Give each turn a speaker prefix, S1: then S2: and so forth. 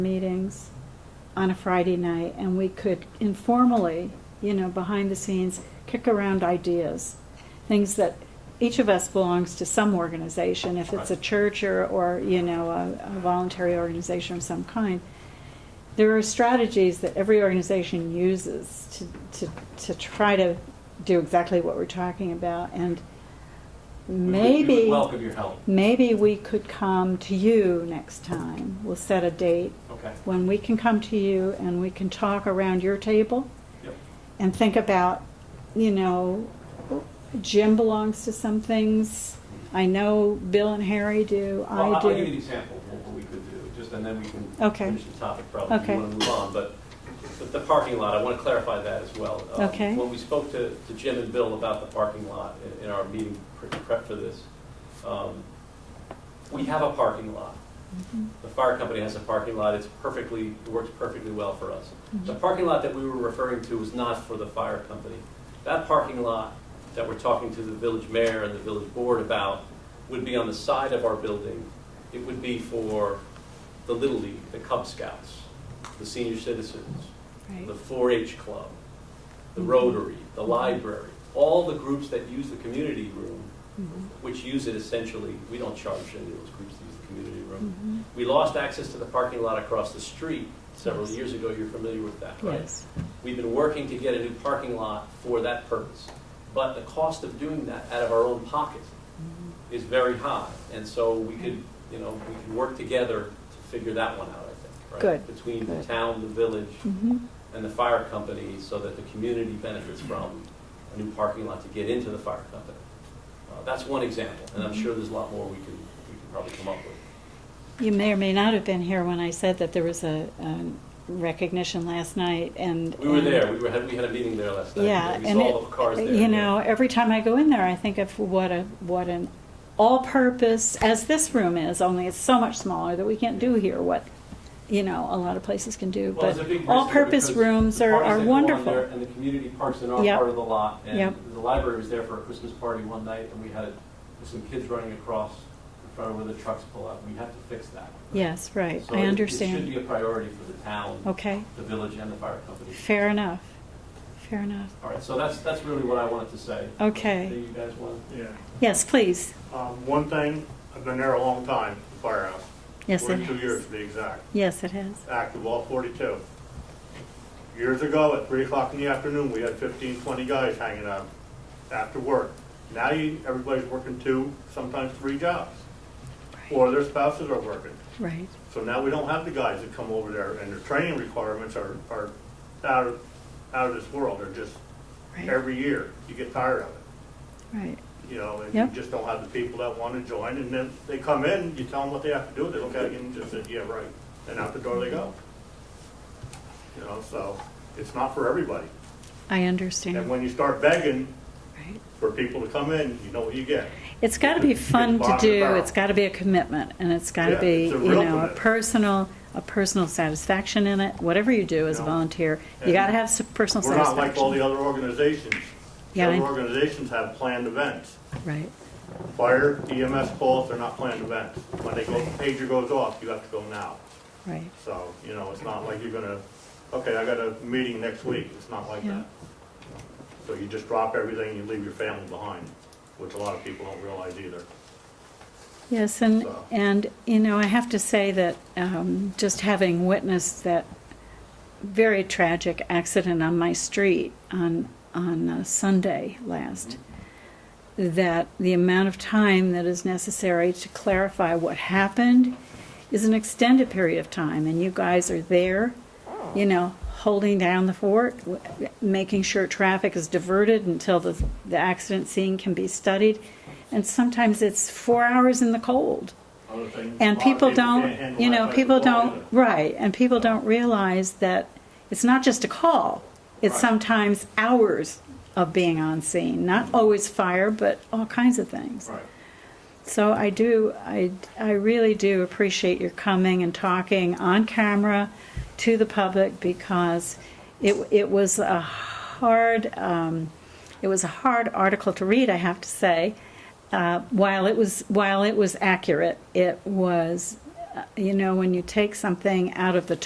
S1: meetings on a Friday night, and we could informally, you know, behind the scenes, kick around ideas, things that each of us belongs to some organization, if it's a
S2: Right.
S1: church or, or you know, a, a voluntary organization of some kind. There are strategies that every organization uses to, to, to try to do exactly what we're talking about, and
S2: We would-
S1: maybe.
S2: We would welcome your help.
S1: Maybe we could come to you next time. We'll set a date
S2: Okay.
S1: when we can come to you and we can talk around your table
S2: Yep.
S1: and think about, you know, Jim belongs to some things. I know Bill and Harry do.
S2: Well,
S1: I
S2: I'll- I'll give you an
S1: do.
S2: example of what we could do, just, and then we can
S1: Okay.
S2: finish the topic probably. if
S1: Okay.
S2: You want to move on, but the- the parking lot, I want to clarify that as well. Um,
S1: Okay.
S2: When we spoke to to Jim and Bill about the parking lot in- in our meeting pre- prep for this, um, we have a parking lot. The fire company has a parking lot, it's perfectly, it works perfectly well for us. The parking lot that we were referring to was not for the fire company. That parking lot that we're talking to the village mayor and the village board about would be on the side of our building. It would be for the Little League, the Cub Scouts, the senior citizens,
S1: Right.
S2: the 4-H club, the Rotary, the library, all the groups that use the community room,
S1: Mhm.
S2: which use it essentially, we don't charge any of those groups to use the community room.
S1: Mhm.
S2: We lost access to the parking lot across the street several years ago, you're familiar with that, right?
S1: Yes.
S2: We've been working to get a new parking lot for that purpose, but the cost of doing that out of our own pocket
S1: Mm-hmm.
S2: is very high, and so we could, you know, we could work together to figure that one out, I think, right?
S1: Good,
S2: Between the
S1: good.
S2: town, the village,
S1: Mhm.
S2: and the fire company, so that the community benefits from a new parking lot to get into the fire company. Uh, That's one example, and
S1: Mm-hmm.
S2: I'm sure there's a lot more we can, we can probably come up with.
S1: You may or may not have been here when I said that there was a, a recognition last night and.
S2: We were
S1: and-
S2: there, we were, had- we had a meeting there last night.
S1: Yeah,
S2: We
S1: and
S2: saw all the cars there.
S1: it, uh, you know, every time I go in there, I think of what a, what an all-purpose, as this room is, only it's so much smaller that we can't do here what, you know, a lot of places can do,
S2: Well,
S1: but
S2: there's a big risk there
S1: all-purpose
S2: because
S1: rooms
S2: the
S1: are,
S2: parties
S1: are
S2: that go on there
S1: wonderful.
S2: And the community parks in our
S1: Yep.
S2: part of the lot, and
S1: Yep.
S2: the library was there for a Christmas party one night, and we had some kids running across in front of where the trucks pull out, we have to fix that.
S1: Yes, right,
S2: So it-
S1: I
S2: It should be
S1: understand.
S2: a priority for the town,
S1: Okay,
S2: the village, and the fire company.
S1: fair enough, fair enough.
S2: All right, so that's, that's really what I wanted to say.
S1: Okay.
S2: Do you guys want?
S3: Yeah.
S1: Yes, please,
S3: Um, One thing, I've been there a long time, the firehouse.
S1: yes, it
S3: 42 years
S1: has.
S3: to be exact,
S1: Yes, it has.
S3: active all 42. Years ago, at 3 o'clock in the afternoon, we had 15, 20 guys hanging out after work. Now you, everybody's working two, sometimes three jobs,
S1: Right,
S3: or their spouses are working.
S1: Right,
S3: So now we don't have the guys that come over there, and their training requirements are, are out of, out of this world. They're just,
S1: right,
S3: every year, you get tired of it.
S1: right,
S3: you know, and
S1: Yeah.
S3: you just don't have the people that want to join, and then they come in, you tell them what they have to do, they look at you and just say, yeah, right, and out the door they go. You know, so, it's not for everybody,
S1: I
S3: and
S1: understand,
S3: when you start begging
S1: right.
S3: for people to come in, you know what you get.
S1: It's got to be fun to
S3: Bottom of the
S1: do.
S3: barrel.
S1: It's got to be a commitment, and it's got to
S3: Yeah,
S1: be
S3: it's a
S1: you
S3: real
S1: know a
S3: commitment.
S1: personal a personal satisfaction in it. Whatever you do as a
S3: No.
S1: volunteer, you
S3: And
S1: got to have some personal
S3: We're not
S1: satisfaction.
S3: like all the other organizations.
S1: Yeah, I-
S3: Other organizations have planned events.
S1: right,
S3: Fire, EMS calls, they're not planned events. When they go, pager goes off, you have to go now.
S1: right.
S3: So, you know, it's not like you're gonna, okay, I got a meeting next week, it's not like
S1: Yeah.
S3: that. So you just drop everything, and you leave your family behind, which a lot of people don't realize either.
S1: Yes, and
S3: So-
S1: and you know I have to say that um, just having witnessed that very tragic accident on my street on on uh, Sunday last. that the amount of time that is necessary to clarify what happened is an extended period of time, and you guys are there, you know, holding down the fort, w- making sure traffic is diverted until the, the accident scene can be studied. And sometimes it's four hours in the cold.
S3: Other things-
S1: And
S3: a lot of
S1: people
S3: can't
S1: don't,
S3: handle
S1: you
S3: that
S1: know,
S3: type of
S1: people
S3: call
S1: don't,
S3: either.
S1: right, and people don't realize that it's not just a call. It's
S3: Right.
S1: sometimes hours of being on scene, not always fire, but all kinds of things.
S3: Right.
S1: So I do, I, I really do appreciate your coming and talking on camera to the public because it, it was a hard, um, it was a hard article to read, I have to say. Uh, while it was, while it was accurate, it was uh, you know, when you take something out of the